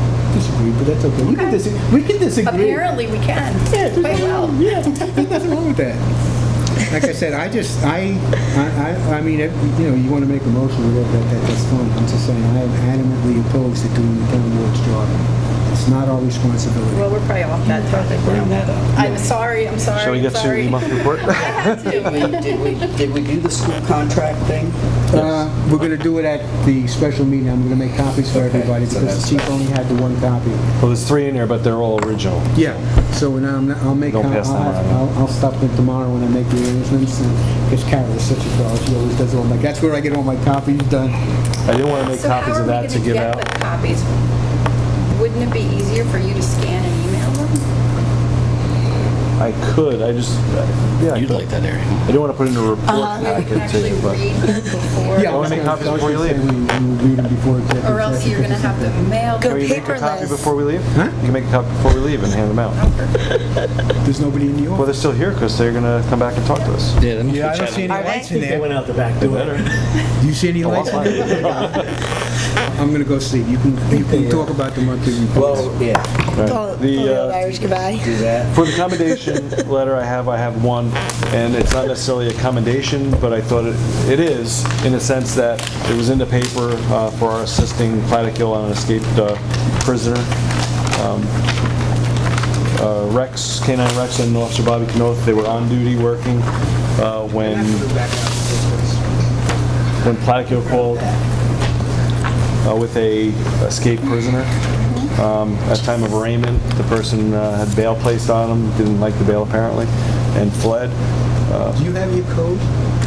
agree, but that's okay. We can disagree. We can disagree. Apparently, we can. Yeah, there's Quite nothing well. wrong- Yeah, there's nothing wrong with that. Like I said, I just, I, I, I- I mean, if, you know, you want to make a motion, or whatever, that, that- that's fine. I'm just saying, I am adamantly opposed to doing the town board's job. It's not our Well, responsibility. we're probably off that topic Bring now. that up. I'm sorry, I'm sorry, Shall we get to sorry. your monthly report? I had Did to. we, did we, did we do the school contract thing? Uh, We're going to do it at the special meeting. I'm going to make copies for Okay, everybody so because the that's chief only had the one copy. Well, there's three in there, but they're all original. Yeah. So now I'm, not- I'll make, I'll, Don't pass them around. I'll I'll stop in tomorrow when I make the arrangements and, because Carol is such a doll. She always does all my, that's where I get all my copies done. I didn't want to make So how copies are of we that to gonna give get out. the copies? Wouldn't it be easier for you to scan and email them? I could, I just, uh, yeah, I You'd could. like that area. I didn't want to put in a report Maybe we can packet to actually you, but read them before. Yeah, I was make gonna- copies I was before you gonna say we- we will read them before executive Or else session you're gonna because have it's a- them mailed. Can you make a copy paperless. before we leave? Huh? You can make a copy before we leave and hand them out. There's nobody in the Well, office. they're still here because they're going to come back and talk to us. Yeah, them Yeah, I keep don't see chatting. any Are they? lights in They there. went out the back door. Do you see any lights in there? I'm gonna go sleep. You can, you can talk about the monthly reports. Well, yeah, Pull, Right. pull The, the old uh, Irish goodbye. do that. For the commendation letter, I have, I have one, and it's not necessarily a commendation, but I thought it, it is, in a sense that it was in the paper uh, for our assisting Platic Hill on an escaped uh, prisoner. Um, uh, Rex, K-9 Rex and Officer Bobby Knoth, they were on duty working uh, when, when Platic Hill called uh, with a escaped prisoner. Um, At time of arraignment, the person uh, had bail placed on him, didn't like the bail apparently, and fled. Do you have your code?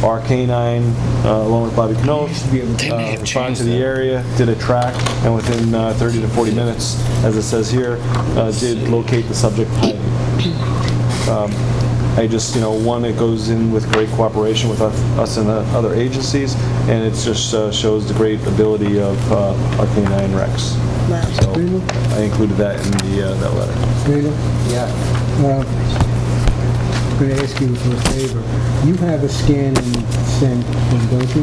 Our K-9, uh, along with Bobby Knopf, be able They to- may have responded to changed the that. area, did a track, and within uh, 30 to 40 minutes, as it says here, uh, did locate the subject hiding. Um, I just, you know, one, it goes in with great cooperation with us us and the other agencies, and it just uh, shows the great ability of uh, our K-9 Rex. So I included that in the, uh, that letter. Rita, Yeah. uh, I'm gonna ask you for a favor. You have a scan and send, one, don't you?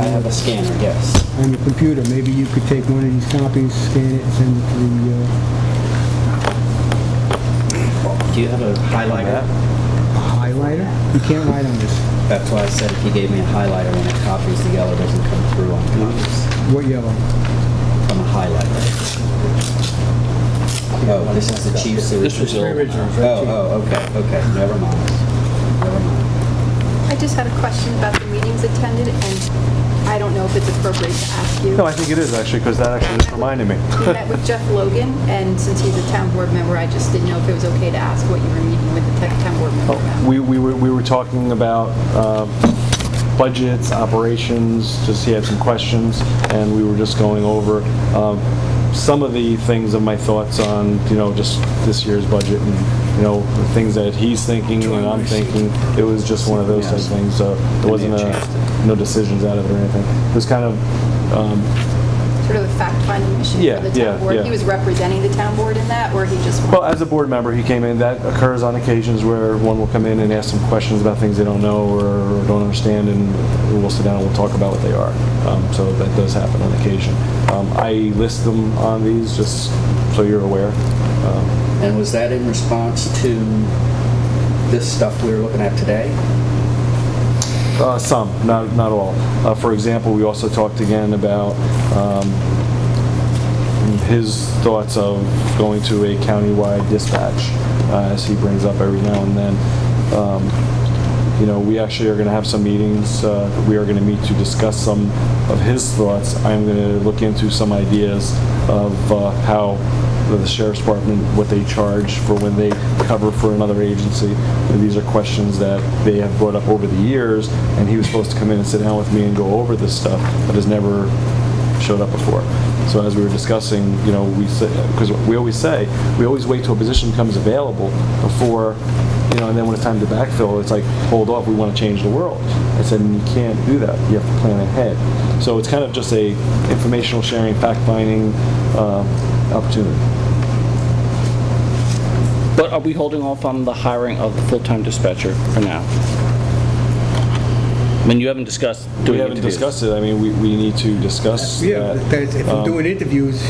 I have a scanner, yes. On your computer, maybe you could take one of these copies, scan it, and send it to the, uh, Do you have a highlighter? highlighter? You can't write on this. That's why I said if you gave me a highlighter when it copies, the yellow doesn't come through on copies. What yellow? On a highlighter. Oh, this is the chief's This was original. old. Oh, oh, okay, okay, never mind. Never mind. I just had a question about the meetings attended, and I don't know if it's appropriate to ask you. No, I think it is actually, because that actually just reminded me. We met with Jeff Logan, and since he's a town board member, I just didn't know if it was okay to ask what you were meeting with the tech- town board member Oh. about. We, we were, we were talking about um, budgets, operations, just he had some questions, and we were just going over um, some of the things of my thoughts on, you know, just this year's budget and, you know, the things that he's thinking and I'm thinking. It was just one of those type things, so there wasn't a, no decisions out of it or anything. It was kind of, um, Sort of a fact-finding mission Yeah, for the yeah, town board. yeah. He was representing the town board in that, or he just Well, wanted... as a board member, he came in, that occurs on occasions where one will come in and ask some questions about things they don't know or don't understand, and we'll sit down and we'll talk about what they are. Um, So that does happen on occasion. Um, I list them on these, just so you're aware. Um, And was that in response to this stuff we were looking at today? uh, Some, not, not all. Uh, For example, we also talked again about um, his thoughts of going to a countywide dispatch, uh, as he brings up every now and then. Um, you know, we actually are going to have some meetings. uh, We are going to meet to discuss some of his thoughts. I'm going to look into some ideas of uh, how the sheriff's department, what they charge for when they cover for another agency. And These are questions that they have brought up over the years, and he was supposed to come in and sit down with me and go over this stuff, but has never showed up before. So as we were discussing, you know, we said, because we always say, we always wait till a position becomes available before you know, and then when it's time to backfill, it's like, hold off, we want to change the world. I said, you can't do that. You have to plan ahead. So it's kind of just a informational sharing, fact-finding uh, opportunity. But are we holding off on the hiring of the full-time dispatcher for now? I mean, you haven't discussed We doing haven't interviews. discussed it. I mean, we, we need to discuss Yeah, that. that is- if I'm Um, doing interviews,